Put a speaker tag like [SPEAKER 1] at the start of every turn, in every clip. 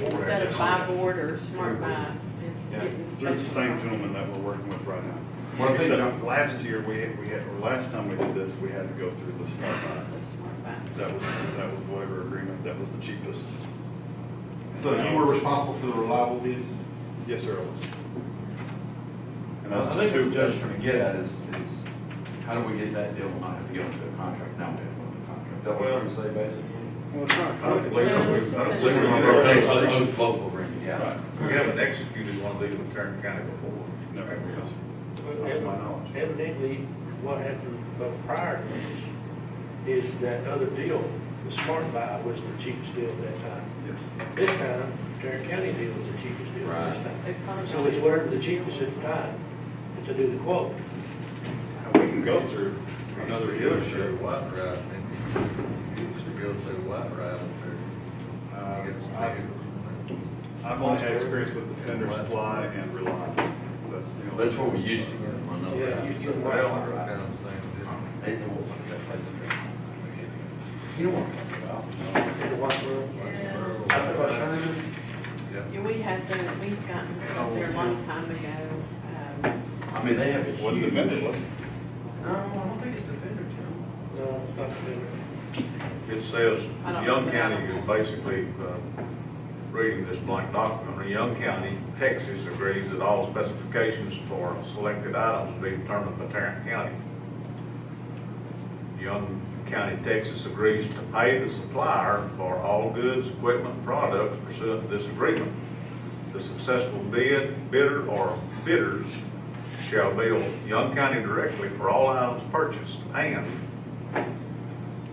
[SPEAKER 1] instead of by board or smart by, it's
[SPEAKER 2] Yeah,
[SPEAKER 1] getting
[SPEAKER 2] through
[SPEAKER 1] special.
[SPEAKER 2] the same gentleman that we're working with right now.
[SPEAKER 3] Well, I think-
[SPEAKER 2] Except last year, we, had- we had, or last time we did this, we had to go through the smart buy.
[SPEAKER 1] The smart buy.
[SPEAKER 2] That was, that was whatever agreement, that was the cheapest.
[SPEAKER 3] So you were responsible for the reliable bids?
[SPEAKER 2] Yes, sir, it was. And that's
[SPEAKER 3] I
[SPEAKER 2] just
[SPEAKER 3] think
[SPEAKER 2] two,
[SPEAKER 3] what Judge trying to get at is, is how do we get that deal to not have to go into a contract, now we have to go into a contract? Is That what I'm say basically?
[SPEAKER 2] well, it's not.
[SPEAKER 3] I don't believe
[SPEAKER 1] Yeah,
[SPEAKER 3] we-
[SPEAKER 1] it's
[SPEAKER 3] I don't
[SPEAKER 1] just-
[SPEAKER 3] believe we-
[SPEAKER 2] Right.
[SPEAKER 4] vote will bring it,
[SPEAKER 2] Right.
[SPEAKER 5] We haven't executed one of these in Tarrant County before.
[SPEAKER 2] No, everyone else. That's my knowledge.
[SPEAKER 6] Evidently, evidently, what happened uh, prior to this is that other deal, the Smart Buy was the cheapest deal at that time.
[SPEAKER 2] Yes.
[SPEAKER 6] This time, Tarrant County deal was the cheapest deal this
[SPEAKER 4] Right.
[SPEAKER 6] time.
[SPEAKER 1] They probably
[SPEAKER 6] So it's where the cheapest at the time to do the quote.
[SPEAKER 2] And we can go through another dealership.
[SPEAKER 5] White Rock, and you used to go through White Rock
[SPEAKER 2] Uh,
[SPEAKER 5] up
[SPEAKER 2] I've- I've only had experience with the Fender Supply and Reliant. That's the only.
[SPEAKER 4] That's what we used to get, I know
[SPEAKER 6] Yeah, you
[SPEAKER 4] that.
[SPEAKER 6] get
[SPEAKER 5] there.
[SPEAKER 6] White
[SPEAKER 5] Well,
[SPEAKER 6] Rock.
[SPEAKER 5] kind of same,
[SPEAKER 4] They know what's in that place. You know what I'm talking about?
[SPEAKER 6] The White Rock.
[SPEAKER 1] Yeah.
[SPEAKER 6] Out of Australia.
[SPEAKER 5] didn't
[SPEAKER 1] Yeah, we had done, we've gotten stuff there a long time ago. um,
[SPEAKER 4] I mean, they have a
[SPEAKER 2] Wasn't the
[SPEAKER 4] huge.
[SPEAKER 2] Fender, was it?
[SPEAKER 4] No, I don't think it's Defender, Tim.
[SPEAKER 6] No, it's not the
[SPEAKER 5] yeah. It says,
[SPEAKER 1] I don't-
[SPEAKER 5] Young County is basically, uh, reading this blank document, "In Young County, Texas agrees that all specifications for selected items will be determined by Tarrant County. Young County, Texas agrees to pay the supplier for all goods, equipment, products pursuant to this agreement. The successful bid, bidder, or bidders shall bill Young County directly for all items purchased, and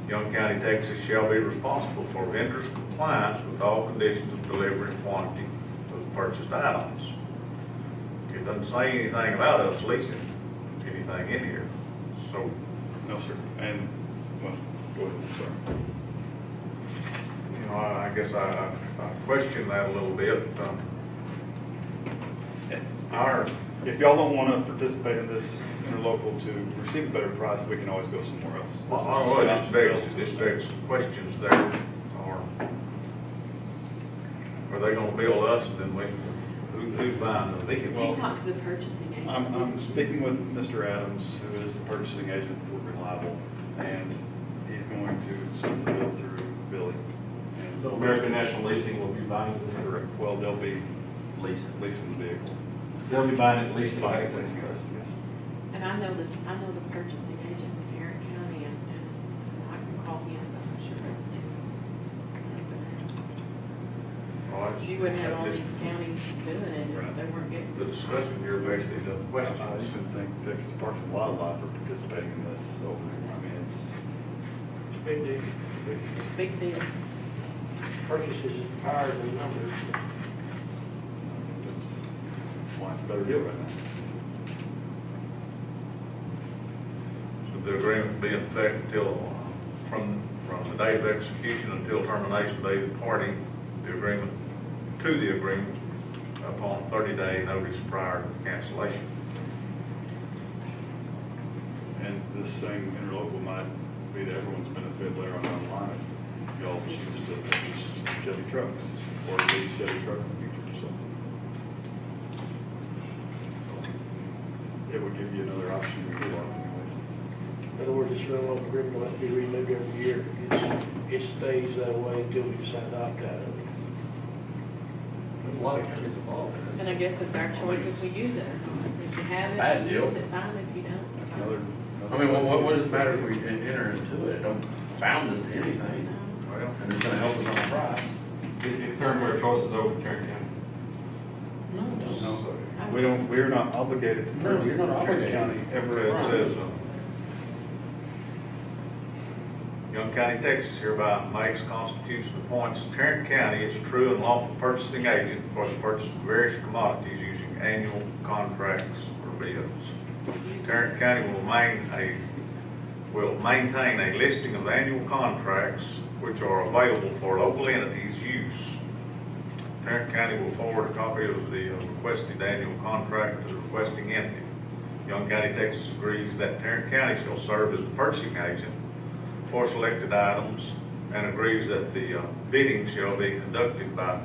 [SPEAKER 5] Young County, Texas shall be responsible for vendor's compliance with all conditions of delivery and quantity of purchased items. It doesn't say anything about us leasing anything in here, so
[SPEAKER 2] No, sir. And, well, go ahead, sorry.
[SPEAKER 5] You know, I I guess I, I- I question that a little bit. um,
[SPEAKER 2] Our, if y'all don't wanna participate in this interlocal to receive a better price, we can always go somewhere else.
[SPEAKER 5] I- I
[SPEAKER 2] This is
[SPEAKER 5] would
[SPEAKER 2] just an
[SPEAKER 5] expect,
[SPEAKER 2] option.
[SPEAKER 5] expect questions there or are they gonna bill us and then we, who, who's buying the
[SPEAKER 1] You
[SPEAKER 5] vehicle?
[SPEAKER 1] talk to the purchasing agent.
[SPEAKER 2] I'm, I'm speaking with Mr. Adams, who is the purchasing agent for Reliable, and he's going to send the bill through Billy. And-
[SPEAKER 3] So American National Leasing will be buying the,
[SPEAKER 2] Correct. Well, they'll be
[SPEAKER 4] Leasing.
[SPEAKER 2] leasing the vehicle.
[SPEAKER 3] they'll be buying it, leasing it.
[SPEAKER 2] Buying it, leasing it, yes.
[SPEAKER 1] And I know the, I know the purchasing agent in Tarrant County, and, and I can call him, but I'm sure everything's.
[SPEAKER 5] All
[SPEAKER 1] But
[SPEAKER 5] right.
[SPEAKER 1] You wouldn't have all
[SPEAKER 5] This-
[SPEAKER 1] these counties doing it if they weren't getting.
[SPEAKER 5] The discussion here basically the
[SPEAKER 2] I
[SPEAKER 5] questions.
[SPEAKER 2] even think Texas Parks and Wildlife are participating in this, so, I mean, it's,
[SPEAKER 6] big deal.
[SPEAKER 1] It's a big deal.
[SPEAKER 6] Purchases is higher than numbers.
[SPEAKER 2] it's, why it's a better deal right now.
[SPEAKER 5] Should the agreement be in effect until, uh, from, from the date of execution until termination date of party, the agreement, to the agreement upon thirty-day notice prior to cancellation?
[SPEAKER 2] And this same interlocal might be to everyone's benefit later on down the line if y'all choose to purchase Chevy trucks or lease Chevy trucks in the future, so. It would give you another option to utilize anyways.
[SPEAKER 6] In other words, this rental agreement will have to be renewed every year. It's, it stays that way until we decide to opt out of it.
[SPEAKER 4] There's a lot of counties involved in
[SPEAKER 1] And I
[SPEAKER 4] this.
[SPEAKER 1] guess it's our choice if we use it or not. If you have
[SPEAKER 4] Bad
[SPEAKER 1] it,
[SPEAKER 4] deal.
[SPEAKER 1] use it, fine, if you
[SPEAKER 2] Like
[SPEAKER 1] don't.
[SPEAKER 2] another-
[SPEAKER 4] I mean, what, what- what does it matter if we en- enter into it? It don't bound us to
[SPEAKER 1] you
[SPEAKER 4] anything,
[SPEAKER 1] know.
[SPEAKER 5] Well,
[SPEAKER 4] and it's gonna help us on the price.
[SPEAKER 3] It, it turned our choices over to Tarrant County.
[SPEAKER 4] No, it doesn't.
[SPEAKER 2] No, we don't, we're not obligated to
[SPEAKER 4] No,
[SPEAKER 2] purchase
[SPEAKER 4] he's not
[SPEAKER 2] the Tarrant
[SPEAKER 4] obligated.
[SPEAKER 2] County
[SPEAKER 5] Where
[SPEAKER 2] ever.
[SPEAKER 5] it says, uh, Young County, Texas hereby makes constitution appoints Tarrant County its true and lawful purchasing agent for the purchase of various commodities using annual contracts or bids. Tarrant County will main a, will maintain a listing of annual contracts which are available for local entities' use. Tarrant County will forward a copy of the uh, requested annual contract to the requesting entity. Young County, Texas agrees that Tarrant County shall serve as the purchasing agent for selected items and agrees that the uh, bidding shall be conducted by